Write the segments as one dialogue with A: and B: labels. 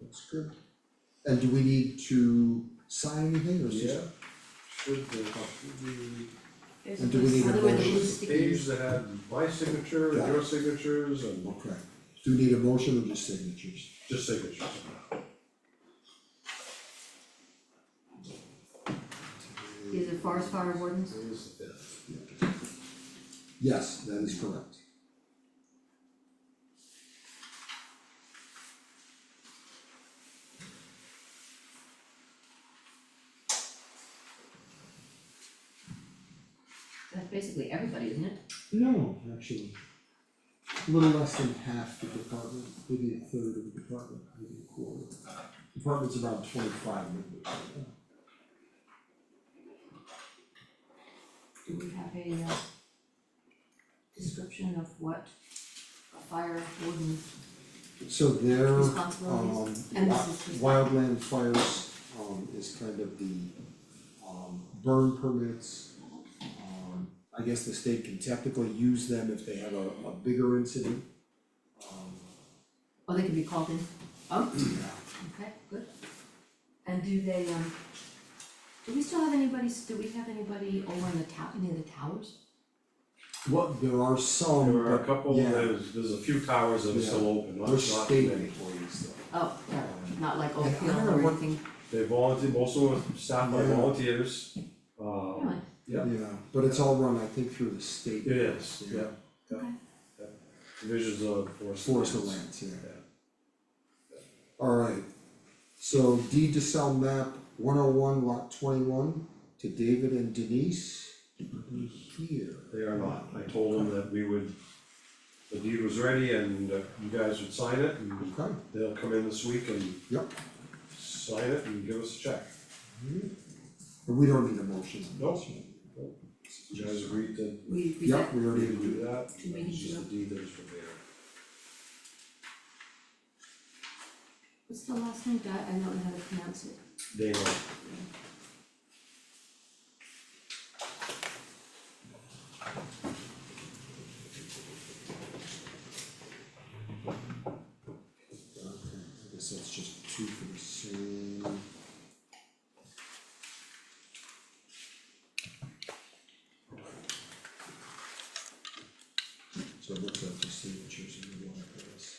A: That's good. And do we need to sign anything or is
B: Yeah,
A: this-
B: should be,
A: And do we need a
C: Other than
A: motion?
C: these
B: the page
C: stickers.
B: that had my signature, and your signatures, and
A: Okay, do we need a motion or just signatures?
B: just signatures.
C: These are forest fire wardens,
B: Today's the fifth.
A: Yes, that is correct.
C: that's basically everybody, isn't it?
A: No, actually. A little less than half the department, maybe a third of the department, maybe a quarter. Department's about twenty-five members right now.
C: Do we have a uh description of what a fire warden,
A: So their um
C: Responsibilities? And
A: wi-
C: this is-
A: wildland fires um is kind of the um burn permits. Um I guess the state can technically use them if they have a a bigger incident. Um
C: oh, they can be called in, oh,
A: yeah,
C: okay, good. And do they um, do we still have anybody, do we have anybody over in the town, near the towers?
A: well, there are some,
B: There are a
A: Um, but
B: couple,
A: yeah,
B: there's, there's a few towers that are still open, not,
A: They're
B: not too
A: state
B: many.
A: employees though.
C: Oh, yeah, not like
A: And I
C: Oakfield
A: don't know
C: or
A: what-
C: anything,
B: They volunteer, most of them are staffed by
A: Yeah.
B: volunteers,
C: really,
B: um, yeah,
A: Yeah, but it's all run, I think, through the state.
B: it is,
A: Yeah.
B: yeah,
C: okay,
B: divisions of forest.
A: Forest
B: lands.
A: lands, yeah.
B: Yeah.
A: Alright, so deed to sell map one oh one lot twenty-one to David and Denise. Here,
B: They are not, I told them that we would, the deed was ready and uh, you guys would sign it and
A: okay,
B: they'll come in this week and
A: yep,
B: sign it and give us a check.
A: but we don't need a motion on this
B: Nope.
A: one.
B: You guys agreed to,
C: we we
A: Yep, we
B: we
A: already
B: to do
A: agreed,
B: that, that
C: Two
B: was
C: meetings
B: just
C: ago.
B: the deed that was prepared.
C: what's the last name, Di- I don't know how to pronounce it.
B: Dana,
A: okay, I guess that's just two for the same. So it looks like the signatures in the one of those.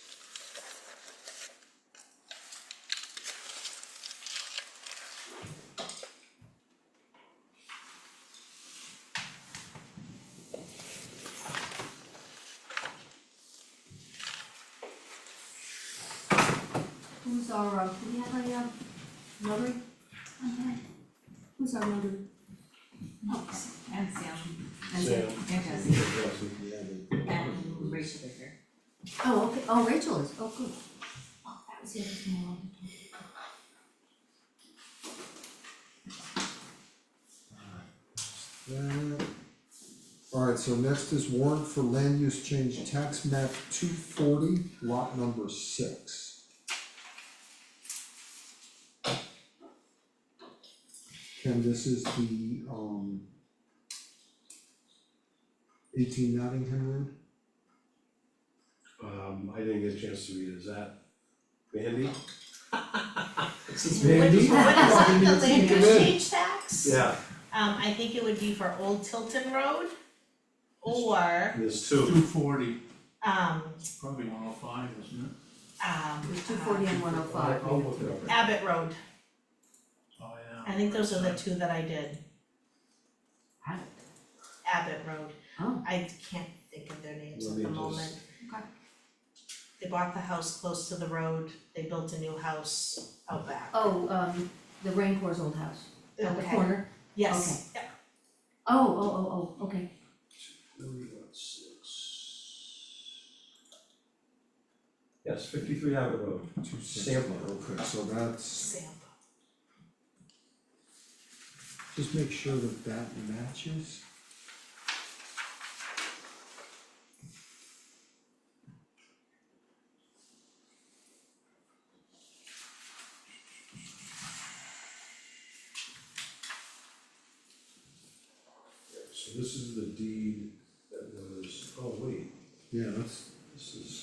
C: Who's our, uh, do we have a, um, notary? Okay. Who's our notary?
D: And Sam,
C: And-
B: Sam,
D: and Jesse,
B: Jesse,
A: Yeah,
D: and Rachel Baker.
C: Oh, okay, oh, Rachel is, oh, good. Oh, that was the other thing I wanted to talk about.
A: That. Alright, so next is warrant for land use change tax map two forty, lot number six. Ken, this is the um. Eighteen Nottingham Road,
B: um, I didn't get a chance to read it, is that Mandy?
A: Mandy?
E: What is on the land
A: Come
E: use
A: in.
E: change tax?
B: Yeah,
E: Um, I think it would be for Old Tilton Road or,
B: there's two,
F: Two forty,
E: um,
F: probably one oh five, isn't it?
C: It
E: um,
C: was two forty and one oh five.
B: I'll look it up.
E: Abbott Road.
F: Oh, yeah.
E: I think those are the two that I did,
C: Had it.
E: Abbott Road.
C: Oh.
E: I can't think of their names at
B: Let
E: the
B: me just-
E: moment.
C: Okay.
E: They bought the house close to the road, they built a new house out back.
C: Oh, um, the Rain Corps old house, at the
E: Okay.
C: corner.
E: Yes, yeah,
C: Oh, oh, oh, oh, okay.
B: Three, one, six. Yes, fifty-three Abbott Road,
A: two six,
B: Sample.
A: okay, so that's,
E: Sam.
A: just make sure that that matches.
B: so this is the deed that was, oh wait,
A: Yeah, that's,
B: oh, this is.